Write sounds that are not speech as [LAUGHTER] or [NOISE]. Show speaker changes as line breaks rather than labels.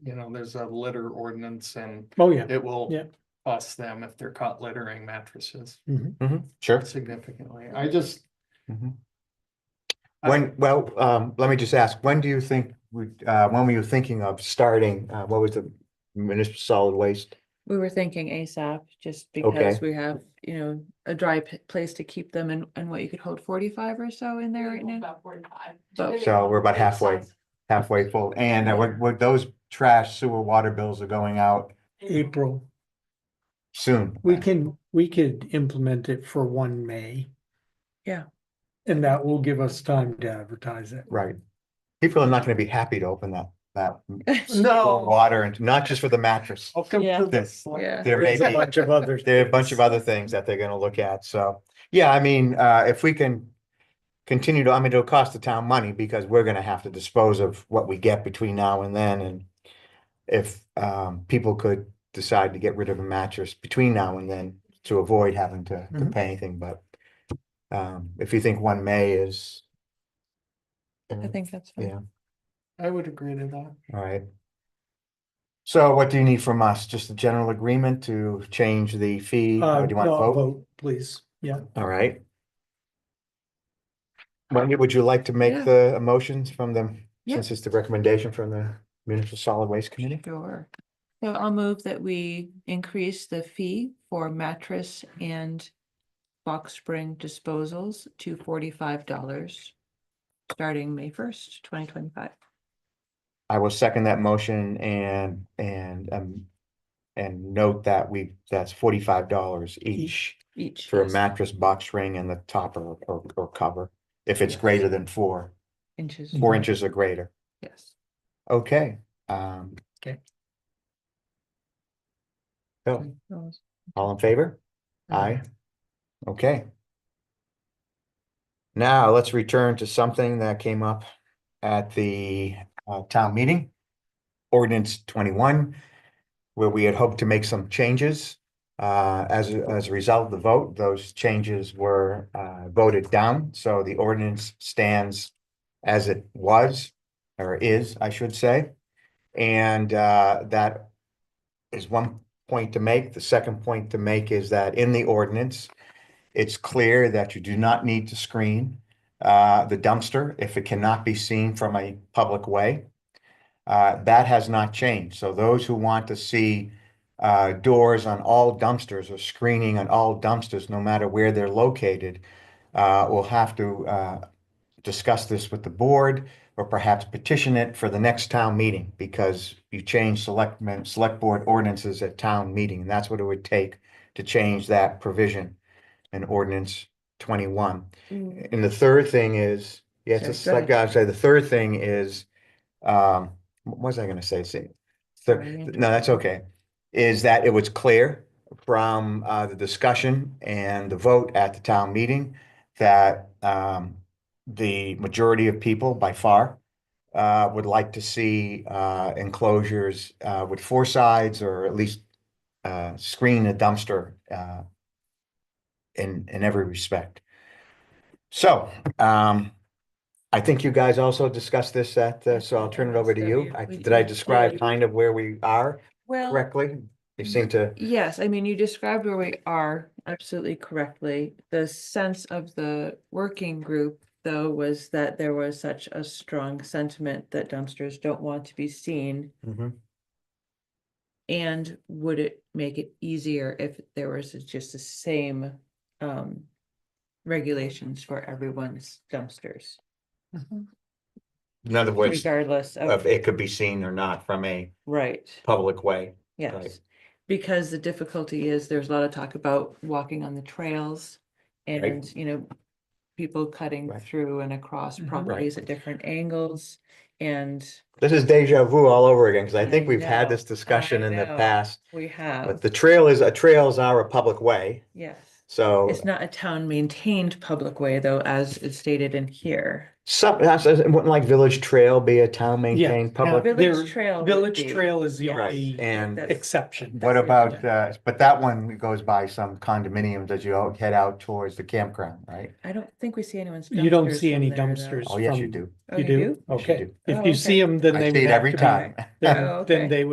you know, there's a litter ordinance and
Oh, yeah.
it will
Yeah.
cost them if they're caught littering mattresses
Mhm.
Sure.
significantly. I just,
Mhm.
I-
When, well, um, let me just ask, when do you think, we- uh, when were you thinking of starting, uh, what was the municipal solid waste?
We were thinking ASAP, just
Okay.
because we have, you know, a dry p- place to keep them and, and what you could hold forty-five or so in there right now.
About forty-five.
But-
So we're about halfway. Halfway full, and uh, what, what those trash sewer water bills are going out
April,
soon. Uh,
we can, we could implement it for one May.
Yeah.
And that will give us time to advertise it.
Right. People are not gonna be happy to open that, that
no,
water and not just for the mattress.
welcome
Yeah.
to this.
This-
Yeah.
There may
There's a
be,
bunch of others.
there are a bunch of other things that they're gonna look at, so, yeah, I mean, uh, if we can. Continue to, I mean, it'll cost the town money because we're gonna have to dispose of what we get between now and then and. If, um, people could decide to get rid of a mattress between now and then to avoid having to,
Mm-hmm.
to
Mhm.
pay anything, but. Um, if you think one May is.
[LAUGHS] I think that's
Yeah.
fine.
I would agree to that.
All right. So what do you need from us? Just a general agreement to change the fee?
Uh,
Or do you want to
no,
vote?
vote, please. Yeah.
All right. Wendy, would you like to
Yeah.
make the motions from them,
Yeah.
since it's the recommendation from the Municipal Solid Waste Committee?
Sure. So I'll move that we increase the fee for mattress and box spring disposals to forty-five dollars. Starting May first, twenty twenty-five.
I will second that motion and, and, um, and note that we, that's forty-five dollars each
Each.
for a
is
mattress box ring and the topper or, or cover, if it's
Yes.
greater than four,
Inches.
four inches or greater.
Yes.
Okay, um.
Okay.
So, all in favor? Aye. Okay. Now, let's return to something that came up at the uh town meeting. Ordinance twenty-one, where we had hoped to make some changes. Uh, as a- as a result of the vote, those changes were uh voted down, so the ordinance stands as it was, or is, I should say. And uh that is one point to make. The second point to make is that in the ordinance, it's clear that you do not need to screen uh, the dumpster if it cannot be seen from a public way. Uh, That has not changed. So those who want to see uh, doors on all dumpsters or screening on all dumpsters, no matter where they're located, uh, will have to uh, discuss this with the board or perhaps petition it for the next town meeting because you change selectmen, select board ordinances at town meeting. And that's what it would take to change that provision in ordinance twenty-one. And the third thing is, yes,
Mm. Sorry,
it's
go
like I said, the third thing is, um, what was I gonna say? See, thir-
Sorry, I
th- no, that's okay. Is that it was clear from, uh, the discussion and the vote at the town meeting that, um, the majority of people by far, uh, would like to see, uh, enclosures, uh, with four sides or at least, uh, screen a dumpster, uh, in, in every respect. So, um, I think you guys also discussed this at, uh, so I'll turn it over to you. I-
We
Did I
did.
describe kind of where we are
Well.
correctly? You seem to,
Yes, I mean, you described where we are absolutely correctly. The sense of the working group, though, was that there was such a strong sentiment that dumpsters don't want to be seen.
Mhm.
And would it make it easier if there was just the same um regulations for everyone's dumpsters? Mm-hmm.
in other words,
Regardless
of
of,
it could be seen or not from a
right,
public way.
yes. Because the difficulty is there's a lot of talk about walking on the trails
Right.
and, you know, people cutting
Right.
through and across
Mhm. Right.
properties at different angles and
This is deja vu all over again, because I
I
think we've had
know,
this discussion
I
in the
know.
past.
we
But
have,
the trail is, uh, trails are a public way,
yes.
so
Oh.
It's not a town maintained public way though, as is stated in here.
Some, that's, wouldn't like Village Trail be a town maintained
Yeah.
public?
Yeah. There-
Village Trail. would
Village
be-
Trail is the
Right,
only
and
That's-
exception.
what about, uh, but that one goes by some condominiums as you all head out towards the campground, right?
I don't think we see anyone's.
You don't
dumpsters
see
from
any
there, though.
dumpsters.
Oh, yes, you
From-
do.
Oh,
You do?
Yes, you
Okay.
do.
Oh,
If
okay.
you see them, then
I
they
see
would
it
have
every
to be,
time. [LAUGHS]
Oh,
then,
okay.
then they would